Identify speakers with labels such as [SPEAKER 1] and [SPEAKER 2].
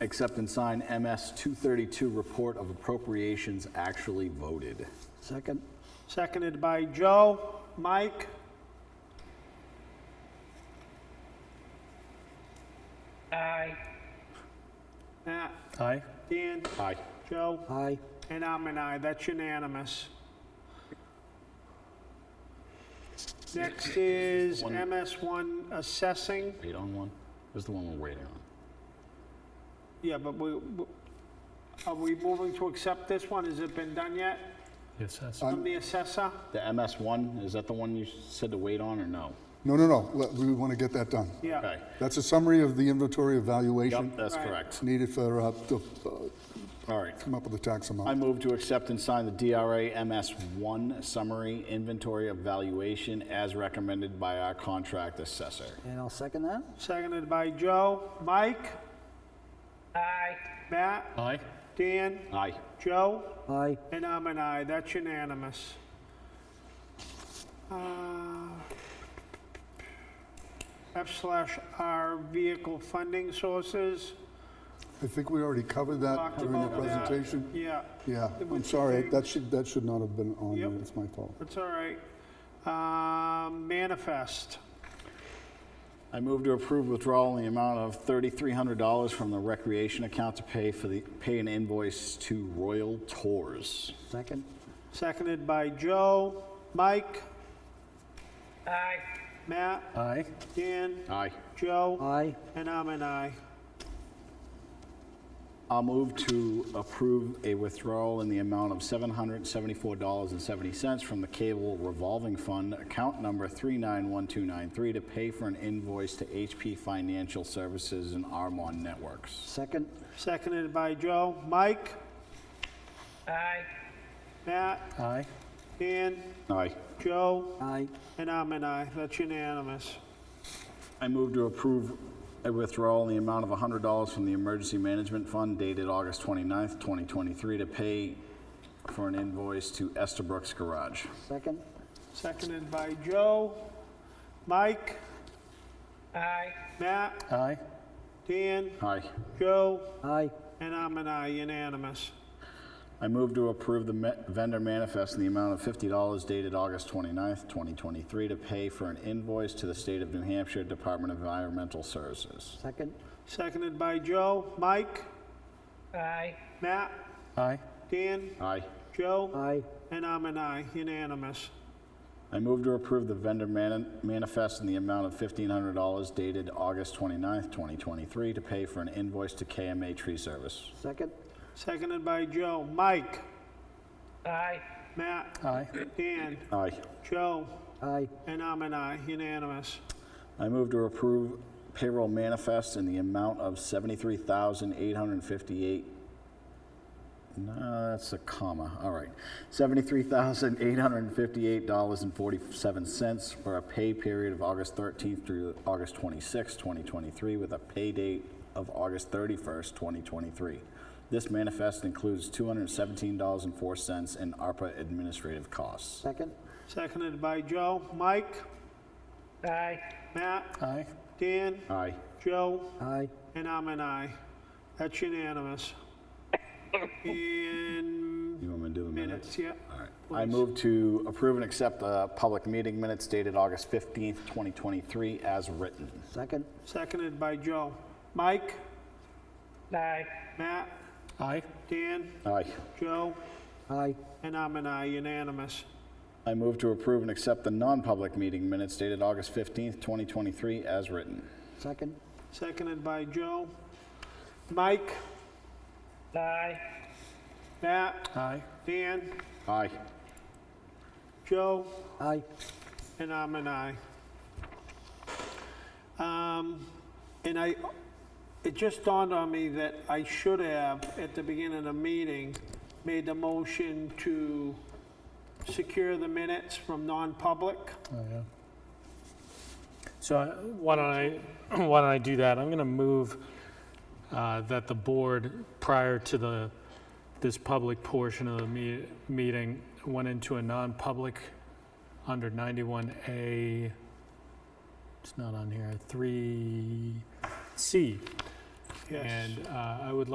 [SPEAKER 1] accept and sign MS 232 report of appropriations actually voted.
[SPEAKER 2] Second.
[SPEAKER 3] Seconded by Joe. Mike? Aye. Matt?
[SPEAKER 4] Aye.
[SPEAKER 3] Dan?
[SPEAKER 1] Aye.
[SPEAKER 3] Joe?
[SPEAKER 2] Aye.
[SPEAKER 3] And I'm an aye. That's unanimous. Next is MS1 assessing.
[SPEAKER 1] Wait on one? This is the one we're waiting on.
[SPEAKER 3] Yeah, but we, we- are we moving to accept this one? Has it been done yet?
[SPEAKER 4] Yes, that's.
[SPEAKER 3] From the assessor?
[SPEAKER 1] Uh, The MS 1, is that the one you said to wait on or no?
[SPEAKER 5] No, no, no, Let- we want to get that done.
[SPEAKER 3] Yeah.
[SPEAKER 1] Okay.
[SPEAKER 5] That's a summary of the inventory
[SPEAKER 1] Yep,
[SPEAKER 5] evaluation
[SPEAKER 1] that's correct.
[SPEAKER 5] needed for, uh, to uh,
[SPEAKER 1] All right.
[SPEAKER 5] come up with the tax
[SPEAKER 1] I
[SPEAKER 5] amount.
[SPEAKER 1] move to accept and sign the DRA MS1 Summary Inventory Evaluation as recommended by our contract assessor.
[SPEAKER 2] And I'll second that.
[SPEAKER 3] Seconded by Joe. Mike? Aye. Matt?
[SPEAKER 4] Aye.
[SPEAKER 3] Dan?
[SPEAKER 1] Aye.
[SPEAKER 3] Joe?
[SPEAKER 2] Aye.
[SPEAKER 3] And I'm an aye. That's unanimous. Uh, F slash R vehicle funding sources.
[SPEAKER 5] I think we already covered that
[SPEAKER 3] Talked
[SPEAKER 5] during the
[SPEAKER 3] about that.
[SPEAKER 5] presentation.
[SPEAKER 3] Yeah,
[SPEAKER 5] Yeah, I'm sorry, that should, that should not have been on there,
[SPEAKER 3] Yep.
[SPEAKER 5] it's my fault.
[SPEAKER 3] that's all right. Um, Manifest.
[SPEAKER 1] I move to approve withdrawal in the amount of $3,300 from the recreation account to pay for the, pay an invoice to Royal Tours.
[SPEAKER 2] Second.
[SPEAKER 3] Seconded by Joe. Mike? Aye. Matt?
[SPEAKER 4] Aye.
[SPEAKER 3] Dan?
[SPEAKER 1] Aye.
[SPEAKER 3] Joe?
[SPEAKER 2] Aye.
[SPEAKER 3] And I'm an aye.
[SPEAKER 1] I'll move to approve a withdrawal in the amount of $774.70 from the Cable Revolving Fund, account number 391293, to pay for an invoice to HP Financial Services and Armon Networks.
[SPEAKER 2] Second.
[SPEAKER 3] Seconded by Joe. Mike? Aye. Matt?
[SPEAKER 4] Aye.
[SPEAKER 3] Dan?
[SPEAKER 1] Aye.
[SPEAKER 3] Joe?
[SPEAKER 2] Aye.
[SPEAKER 3] And I'm an aye, that's unanimous.
[SPEAKER 1] I move to approve a withdrawal in the amount of $100 from the Emergency Management Fund dated August 29th, 2023, to pay for an invoice to Estabrook's Garage.
[SPEAKER 2] Second.
[SPEAKER 3] Seconded by Joe. Mike? Aye. Matt?
[SPEAKER 4] Aye.
[SPEAKER 3] Dan?
[SPEAKER 1] Aye.
[SPEAKER 3] Joe?
[SPEAKER 2] Aye.
[SPEAKER 3] And I'm an aye, unanimous.
[SPEAKER 1] I move to approve the me- vendor manifest in the amount of $50 dated August 29th, 2023, to pay for an invoice to the State of New Hampshire Department of Environmental Services.
[SPEAKER 2] Second.
[SPEAKER 3] Seconded by Joe. Mike? Aye. Matt?
[SPEAKER 4] Aye.
[SPEAKER 3] Dan?
[SPEAKER 1] Aye.
[SPEAKER 3] Joe?
[SPEAKER 2] Aye.
[SPEAKER 3] And I'm an aye, unanimous.
[SPEAKER 1] I move to approve the vendor man- manifest in the amount of $1,500 dated August 29th, 2023, to pay for an invoice to KMA Tree Service.
[SPEAKER 2] Second.
[SPEAKER 3] Seconded by Joe. Mike? Aye. Matt?
[SPEAKER 4] Aye.
[SPEAKER 3] Dan?
[SPEAKER 1] Aye.
[SPEAKER 3] Joe?
[SPEAKER 2] Aye.
[SPEAKER 3] And I'm an aye, unanimous.
[SPEAKER 1] I move to approve payroll manifest in the amount of $73,858. No, that's a comma, all right. $73,858.47 for a pay period of August 13th through August 26th, 2023, with a pay date of August 31st, 2023. This manifest includes $217.04 in ARPA administrative costs.
[SPEAKER 2] Second.
[SPEAKER 3] Seconded by Joe. Mike? Aye. Matt?
[SPEAKER 4] Aye.
[SPEAKER 3] Dan?
[SPEAKER 1] Aye.
[SPEAKER 3] Joe?
[SPEAKER 2] Aye.
[SPEAKER 3] And I'm an aye. That's unanimous. And
[SPEAKER 1] You want me to do the minutes?
[SPEAKER 3] minutes, yeah.
[SPEAKER 1] I move to approve and accept the public meeting minutes dated August 15th, 2023, as written.
[SPEAKER 2] Second.
[SPEAKER 3] Seconded by Joe. Mike? Aye. Matt?
[SPEAKER 4] Aye.
[SPEAKER 3] Dan?
[SPEAKER 1] Aye.
[SPEAKER 3] Joe?
[SPEAKER 2] Aye.
[SPEAKER 3] And I'm an aye, unanimous.
[SPEAKER 1] I move to approve and accept the non-public meeting minutes dated August 15th, 2023, as written.
[SPEAKER 2] Second.
[SPEAKER 3] Seconded by Joe. Mike? Aye. Matt?
[SPEAKER 4] Aye.
[SPEAKER 3] Dan?
[SPEAKER 1] Aye.
[SPEAKER 3] Joe?
[SPEAKER 2] Aye.
[SPEAKER 3] And I'm an aye. Um, And I, it just dawned on me that I should have, at the beginning of the meeting, made the motion to secure the minutes from non-public.
[SPEAKER 4] Oh, yeah. So I- why don't I, why don't I do that? I'm going to move uh, that the board, prior to the, this public portion of the me- meeting, went into a non-public under 91A, it's not on here, 3C,
[SPEAKER 3] Yes.
[SPEAKER 4] And uh, I would like